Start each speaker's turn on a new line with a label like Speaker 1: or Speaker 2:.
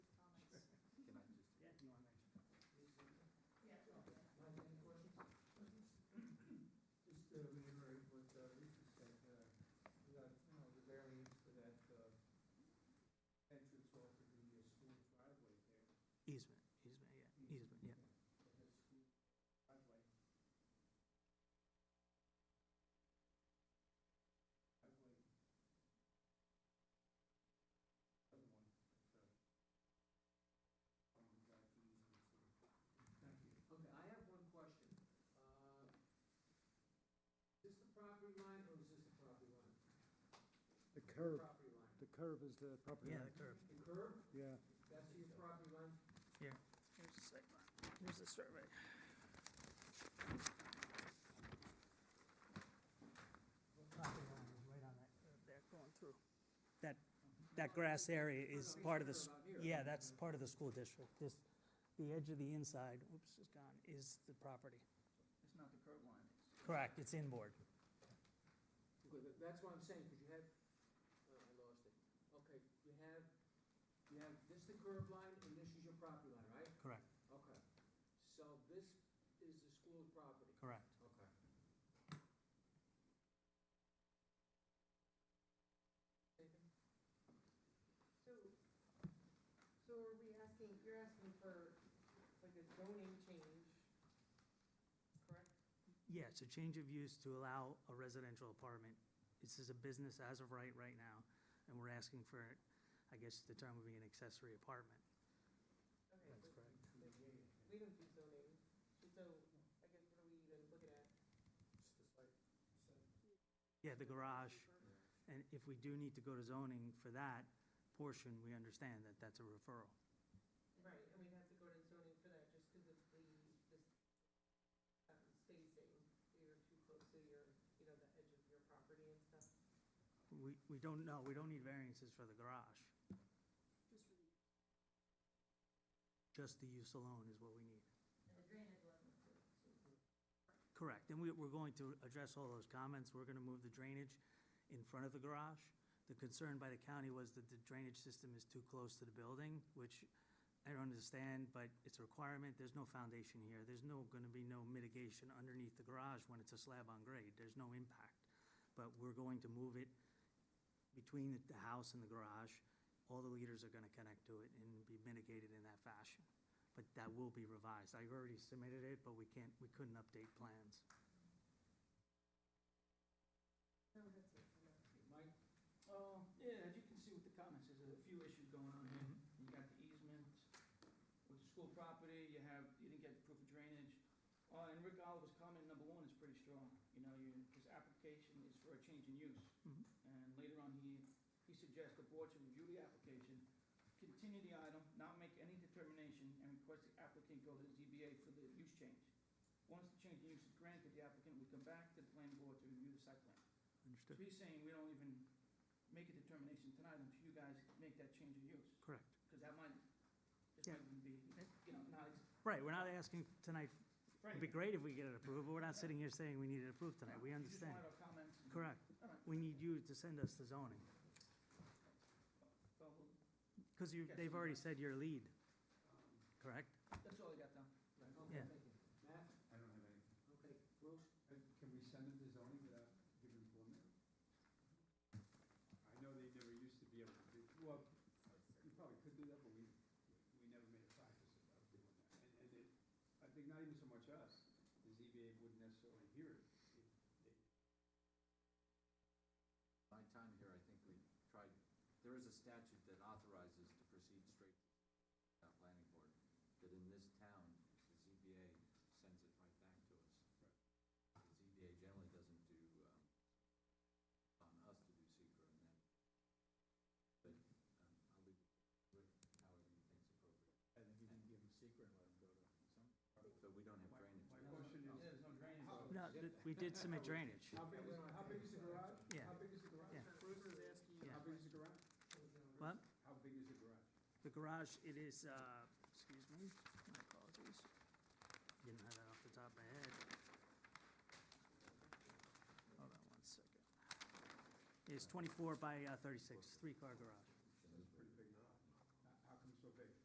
Speaker 1: uh, uh, uh,
Speaker 2: curb.
Speaker 3: Property line.
Speaker 2: The curve is the property
Speaker 4: Yeah,
Speaker 2: line,
Speaker 4: the curve,
Speaker 3: The curb,
Speaker 2: yeah.
Speaker 3: that's your property line,
Speaker 4: here. Here's the site plan, here's the survey. The property line is right on that curve there going through. That, that grass area is
Speaker 3: he's
Speaker 4: part of the,
Speaker 3: talking about
Speaker 4: s-
Speaker 3: here.
Speaker 4: yeah, that's part of the school district. This, the edge of the inside, whoops, it's gone, is the property.
Speaker 1: It's not the curb line.
Speaker 4: Correct, it's inboard.
Speaker 3: Okay, but that's what I'm saying, because you have, oh, I lost it. Okay, you have, you have, this the curb line, and this is your property line, right?
Speaker 4: Correct,
Speaker 3: Okay, so this is the school's property,
Speaker 4: correct.
Speaker 3: okay.
Speaker 5: So, so are we asking, you're asking for like a zoning change, correct?
Speaker 4: Yeah, it's a change of use to allow a residential apartment. This is a business as of right, right now, and we're asking for, I guess the term would be an accessory apartment.
Speaker 5: Okay,
Speaker 4: That's
Speaker 5: but
Speaker 4: correct.
Speaker 5: we don't do zoning, so I guess what are we even looking at?
Speaker 4: Yeah, the garage, and if we do need to go to zoning for that portion, we understand that that's a referral.
Speaker 5: Right, and we'd have to go to zoning for that just because of the, this um, spacing, you're too close to your, you know, the edge of your property and stuff.
Speaker 4: We, we don't know, we don't need variances for the garage.
Speaker 5: Just for the
Speaker 4: Just the use alone is what we need.
Speaker 6: And the drainage wasn't approved.
Speaker 5: Mm-hmm.
Speaker 4: Correct, and we, we're going to address all those comments, we're gonna move the drainage in front of the garage. The concern by the county was that the drainage system is too close to the building, which I don't understand, but it's a requirement, there's no foundation here, there's no, gonna be no mitigation underneath the garage when it's a slab on grade, there's no impact. But we're going to move it between the- the house and the garage, all the leaders are gonna connect to it and be mitigated in that fashion but that will be revised. I already submitted it, but we can't, we couldn't update plans.
Speaker 5: No, that's it, I'm not-
Speaker 1: Mike? Uh, yeah, as you can see with the comments, there's a few issues going on here. You got the easement with the school property, you have, you didn't get proof of drainage. Uh, and Rick Oliver's comment number one is pretty strong, you know, you, his application is for a change in use.
Speaker 4: Mhm.
Speaker 1: And later on, he, he suggests the board should review the application, continue the item, not make any determination, and request the applicant go to the ZBA for the use change. Once the change in use is granted, the applicant would come back to the planning board to review the site plan. So
Speaker 4: Understood.
Speaker 1: he's saying we don't even make a determination tonight until you guys make that change of use,
Speaker 4: Correct.
Speaker 1: because that might, this
Speaker 4: Yeah.
Speaker 1: might even be, you know, not, it's
Speaker 4: Right, we're not asking tonight,
Speaker 1: for
Speaker 4: it'd be
Speaker 1: anything.
Speaker 4: great if we get it approved, but we're not sitting here saying we need it approved tonight. We
Speaker 1: You
Speaker 4: understand.
Speaker 1: just wanted our comments. and-
Speaker 4: Correct.
Speaker 1: All right.
Speaker 4: We need you to send us the zoning,
Speaker 1: Well, we'll-
Speaker 4: because you,
Speaker 1: Yes,
Speaker 4: they've
Speaker 1: we
Speaker 4: already
Speaker 1: will.
Speaker 4: said your lead,
Speaker 1: Um,
Speaker 4: correct?
Speaker 1: That's all I got, Tom.
Speaker 4: Yeah.
Speaker 3: Matt,
Speaker 7: I don't have any.
Speaker 3: okay, Bruce,
Speaker 7: Uh, Can we send them the zoning without giving preliminary? I know they never used to be able to do, well, you probably could do that, but we, we never made a practice of doing that. And, and it, I think not even so much us, the ZBA wouldn't necessarily hear it.
Speaker 8: My time here, I think we tried, there is a statute that authorizes to proceed straight to the planning board, that in this town, the ZBA sends it right back to us. The ZBA generally doesn't do, um, on us to do secret and then, but, um, I'll leave it with however you think's appropriate.
Speaker 7: I think you can give them secret and let them go to some.
Speaker 8: But we don't have drainage.
Speaker 7: My
Speaker 8: right?
Speaker 7: question
Speaker 1: Yeah,
Speaker 7: is,
Speaker 1: There's no drainage. so-
Speaker 4: No, th- we did
Speaker 1: Oh,
Speaker 4: submit drainage.
Speaker 7: how big is, how big is the garage?
Speaker 4: Yeah.
Speaker 7: How big is the garage?
Speaker 4: Yeah.
Speaker 7: Bruce is asking
Speaker 4: you-
Speaker 7: How big is the garage?
Speaker 4: What?
Speaker 7: How big is the garage?
Speaker 4: The garage, it is, uh, excuse me, my apologies. Didn't have that off the top of my head. Hold on one second. It's twenty-four by uh, thirty-six, three-car garage.